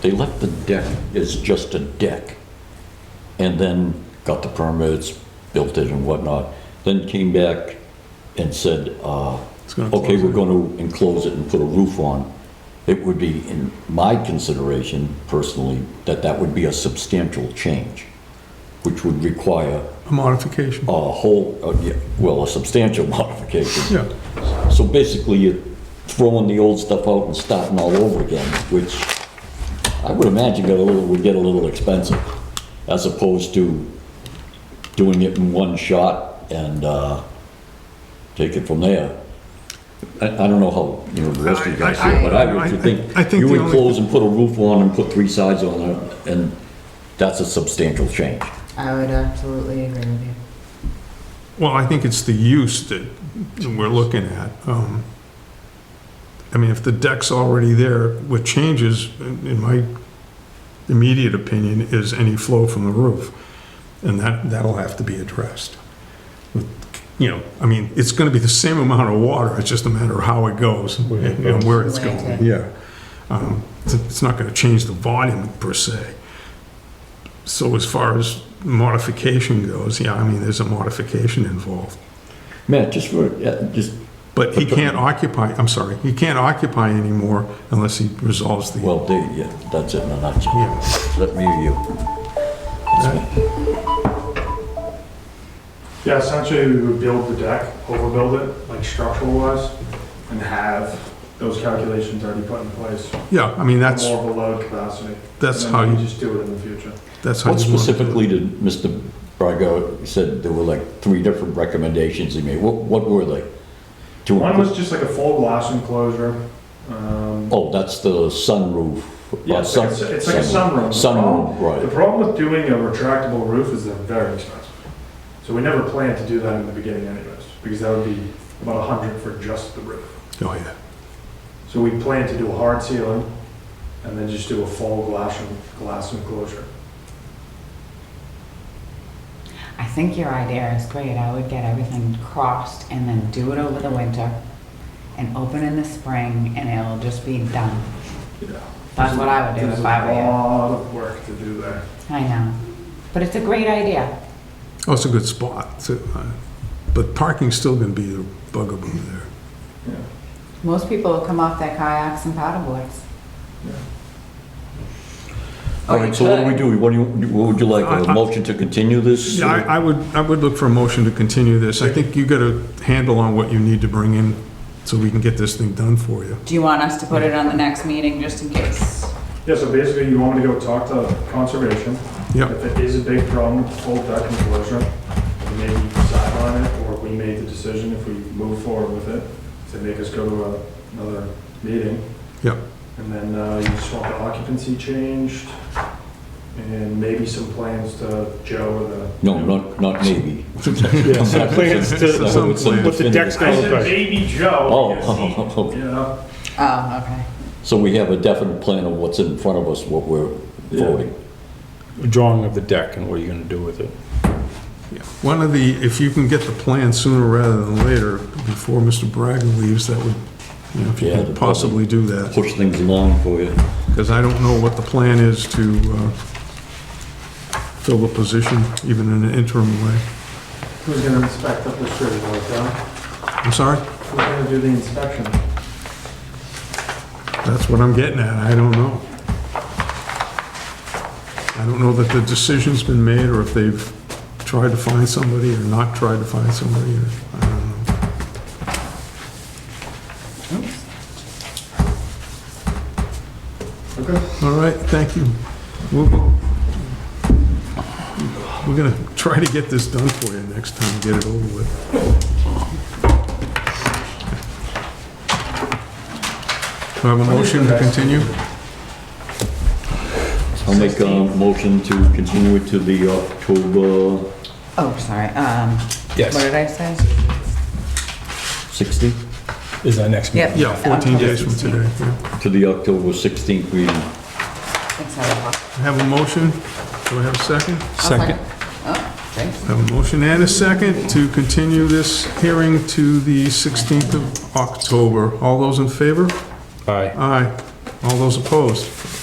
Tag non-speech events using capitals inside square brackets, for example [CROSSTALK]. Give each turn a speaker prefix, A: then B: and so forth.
A: They left the deck as just a deck and then got the permits, built it and whatnot. Then came back and said, uh,
B: It's gonna
A: okay,
B: close
A: we're
B: it."
A: going to enclose it and put a roof on. It would be, in my consideration personally, that that would be a substantial change, which would require
B: A modification.
A: a whole, uh, yeah, well, a substantial [LAUGHS] modification.
B: Yeah,
A: So basically, you're throwing the old stuff out and starting all over again, which I would imagine got a little, would get a little expensive, as opposed to doing it in one shot and, uh, take it from there. I, I don't know how, you know, the rest of you guys
B: I- I-
A: feel, but I
B: I-
A: would
B: I
A: think
B: think
A: you
B: the
A: would
B: only-
A: close and put a roof on and put three sides on it, and that's a substantial change.
C: I would absolutely agree with you.
B: well, I think it's the use that we're looking at. Um, I mean, if the deck's already there, what changes, in in my immediate opinion, is any flow from the roof. And that, that'll have to be addressed. You know, I mean, it's gonna be the same amount of water, it's just a matter of how it goes and and where it's going, yeah. Um, It's it's not gonna change the volume per se. So as far as modification goes, yeah, I mean, there's a modification involved.
A: Matt, just for, uh, just,
B: But he can't occupy, I'm sorry, he can't occupy anymore unless he resolves the,
A: well, there, yeah, that's it in a nutshell.
B: yeah.
A: Let me or you. That's me.
D: Yeah, essentially, we would build the deck, overbuild it, like structural wise, and have those calculations already put in place. for
B: Yeah, I mean, that's,
D: More of a load capacity.
B: that's
D: And
B: how
D: then we
B: you,
D: Just do it in the future.
B: that's how you
A: What
B: want to do it.
A: specifically did Mr. Braga said there were like three different recommendations he made? What, what were they? To
D: One
A: include-
D: was just like a full glass enclosure. um,
A: Oh, that's the sunroof.
D: Yeah,
A: uh,
D: it's like a-
A: sun-
D: it's like a sunroom.
A: Sunroom,
D: The
A: right.
D: problem with doing a retractable roof is they're very expensive. So we never planned to do that in the beginning anyways, because that would be about a hundred for just the roof.
B: Oh, yeah.
D: So we plan to do a hard ceiling and then just do a full glass, en- glass enclosure.
C: I think your idea is great. I would get everything crossed and then do it over the winter and open in the spring and it'll just be done.
D: Yeah.
C: That's what I would do if I were
D: There's a
C: you.
D: lot of work to do there.
C: I know. But it's a great idea.
B: Oh, it's a good spot, so, uh, but parking's still gonna be a bugaboo there.
D: Yeah.
C: Most people will come off their kayaks and paddleboards.
A: All right, so what do we do? What do you, what would you like?
B: I-
A: A
B: I-
A: motion to continue this?
B: Yeah, I, I would, I would look for a motion to continue this. I think you got a handle on what you need to bring in so we can get this thing done for you.
C: Do you want us to put it on the next meeting just in case?
D: Yeah, so basically you want me to go talk to conservation.
B: Yeah,
D: If it is a big problem, with the full deck enclosure, we may decide on it, or we made the decision if we move forward with it, to make us go to a- another meeting.
B: Yep.
D: And then uh, you just want the occupancy changed, and maybe some plans to Joe and the.
A: No, not, not maybe.
E: Yeah, some plans to,
B: Some plans.
E: what the deck's
D: I
E: gonna look
D: said
E: like.
D: maybe Joe.
A: Oh, okay.
D: You know,
C: Oh, okay.
A: So we have a definite plan of what's in front of us, what we're
D: Yeah.
A: voting.
E: Drawing of the deck and what are you gonna do with it?
B: yeah. One of the, if you can get the plan sooner rather than later, before Mr. Braga leaves, that would, you know, if you
A: Yeah, the
B: could possibly do that.
A: Push things along for you.
B: Because I don't know what the plan is to uh, fill the position, even in an interim way.
D: who's gonna inspect up the street, like, uh,
B: I'm sorry,
D: who's gonna do the inspection?
B: that's what I'm getting at, I don't know. I don't know that the decision's been made, or if they've tried to find somebody, or not tried to find somebody, or, I don't know.
C: Oops.
D: Okay.
B: All right, thank you. We'll go- We're gonna try to get this done for you next time, get it over with. Do I have a motion to continue?
A: I'll make a motion to continue it to the October
C: Oh, sorry. Um,
E: Yes.
C: What did I say?
A: 16th?
E: Is our next meeting?
C: Yep.
B: Yeah, 14 days from today. yeah.
A: To the October 16th meeting.
C: Six o'clock.
B: I Have a motion? Do I have a second?
E: Second,
C: Oh, thanks.
B: I Have a motion and a second to continue this hearing to the 16th of October. All those in favor?
E: aye.
B: Aye. All those opposed?